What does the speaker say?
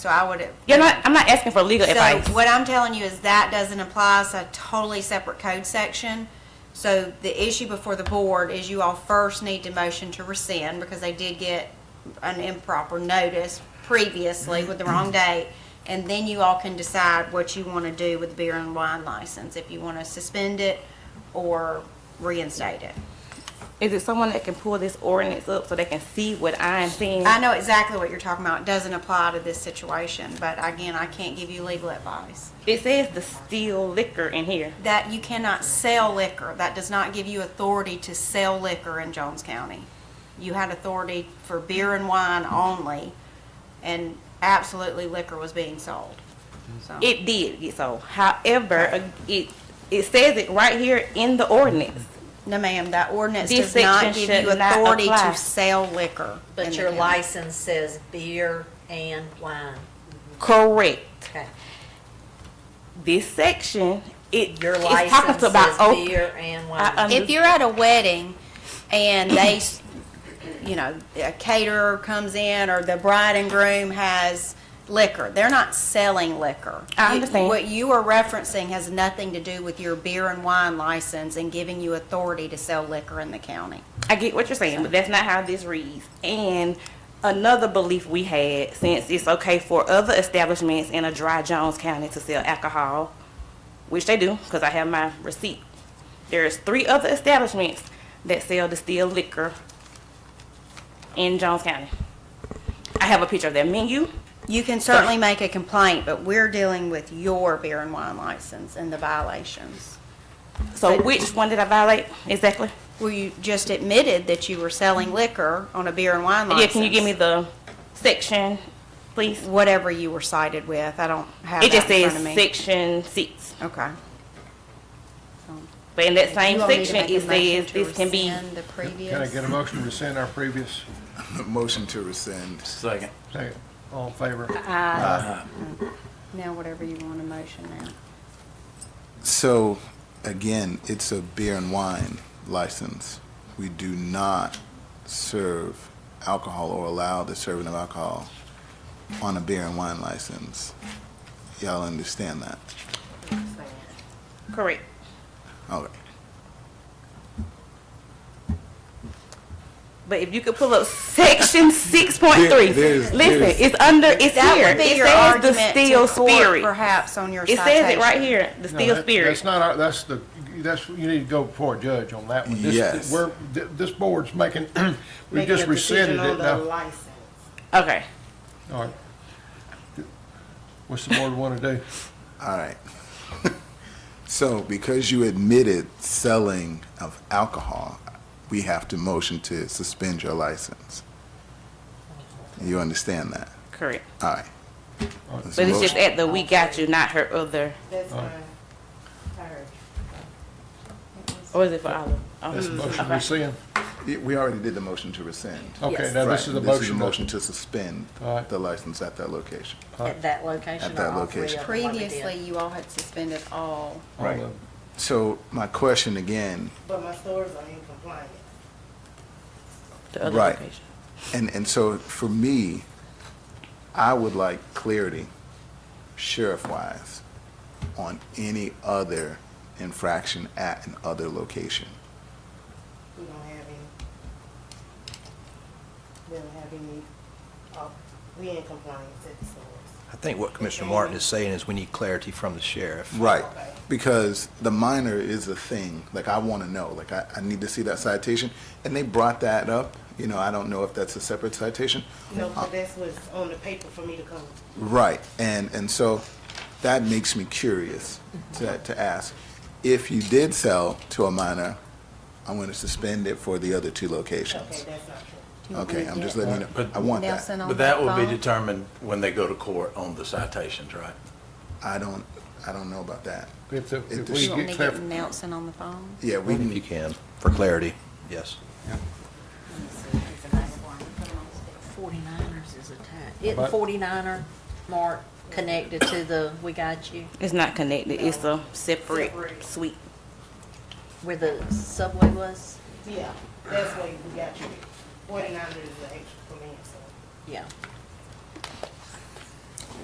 So I would. You're not, I'm not asking for legal advice. So what I'm telling you is that doesn't apply, it's a totally separate code section. So the issue before the board is you all first need to motion to rescind because they did get an improper notice previously with the wrong date. And then you all can decide what you want to do with the beer and wine license, if you want to suspend it or reinstate it. Is it someone that can pull this ordinance up so they can see what I am seeing? I know exactly what you're talking about. It doesn't apply to this situation, but again, I can't give you legal advice. It says the steel liquor in here. that you cannot sell liquor. That does not give you authority to sell liquor in Jones County. You had authority for beer and wine only, and absolutely liquor was being sold. So, It did get sold. However, uh, it, it says it right here in the ordinance. no ma'am, that ordinance This does not section give you should not authority apply. to sell liquor. in But the your county. license says beer and wine. Correct. Okay. This section, it, Your it's talking license to about says open. beer and I wine. If you're at a wedding and they, s- you know, a caterer comes in or the bride and groom has liquor, they're not selling liquor. I You- understand. What you are referencing has nothing to do with your beer and wine license and giving you authority to sell liquor in the county. I get what you're saying, but that's not how this reads. And another belief we had, since it's okay for other establishments in a dry Jones County to sell alcohol, which they do, because I have my receipt. There's three other establishments that sell distilled liquor in Jones County. I have a picture of their menu. You can certainly make a complaint, but we're dealing with your beer and wine license and the violations. So which one did I violate exactly? Well, you just admitted that you were selling liquor on a beer and wine license. Yeah, can you give me the section, please? Whatever you were cited with, I don't have It just that in says front of me. section six. Okay. But in that same You want me to section, make a it motion says to this can be, rescind the previous? Can I get a motion to rescind our previous, Motion to rescind. Second. second, all in favor? Now, whatever you want a motion now. So, again, it's a beer and wine license. We do not serve alcohol or allow the serving of alcohol on a beer and wine license. Y'all understand that? correct. Okay. But if you could pull up section six point three, There- there's- listen, there's- it's under, it's That here. would be It your says the argument steel to court, spirit. perhaps, on your It citation. says it right here, the No, steel that- spirit. That's not our, that's the, that's, you need to go before a judge on that one. This- Yes. We're, th- this board's making, we just rescinded it now. Okay. All right. What's the board want to do? All right. so, because you admitted selling of alcohol, we have to motion to suspend your license. You understand that? Correct. All right. But it's just at the we got you, not her other, That's All uh, my right. third. or is it for Olive? That's a Oh, motion to okay. rescind. We already did the motion to rescind. Okay, Oh, now this is a Right, motion. to- to suspend All right. the license at that location. At that location At or that all three of location. them? what we did. Previously, you all had suspended all. all Right. of- So my question again, But my stores are in compliance. The other Right. location. and, and so for me, I would like clarity, sheriff-wise, on any other infraction at an other location. We don't have any. We don't have any, uh, we in compliance at the stores. I think what Commissioner Martin is saying is we need clarity from the sheriff. Right, because the minor is a thing, like I want to know, like I, I need to see that citation. And they brought that up, you know, I don't know if that's a separate citation. No, but that's what's on the paper for me to come. Right, and, and so that makes me curious to, to ask, if you did sell to a minor, I'm gonna suspend it for the other two Okay, locations. that's not true. Do you want me Okay, to I'm just get letting you know, But- I want that. Nelson on But that will be phone? determined when they go to court on the citations, right? I don't, I don't know about that. If, the- If if the we You want me get to get clarification. Nelson on the phone? Yeah, we If you can, can, for clarity, yes. Forty-niners is attached. Isn't forty-niner, Mark, connected to the We Got You, It's not connected, it's a separate suite. where the Subway was? Yeah, that's why we got you. Forty-nine is the extra for me, so. Yeah.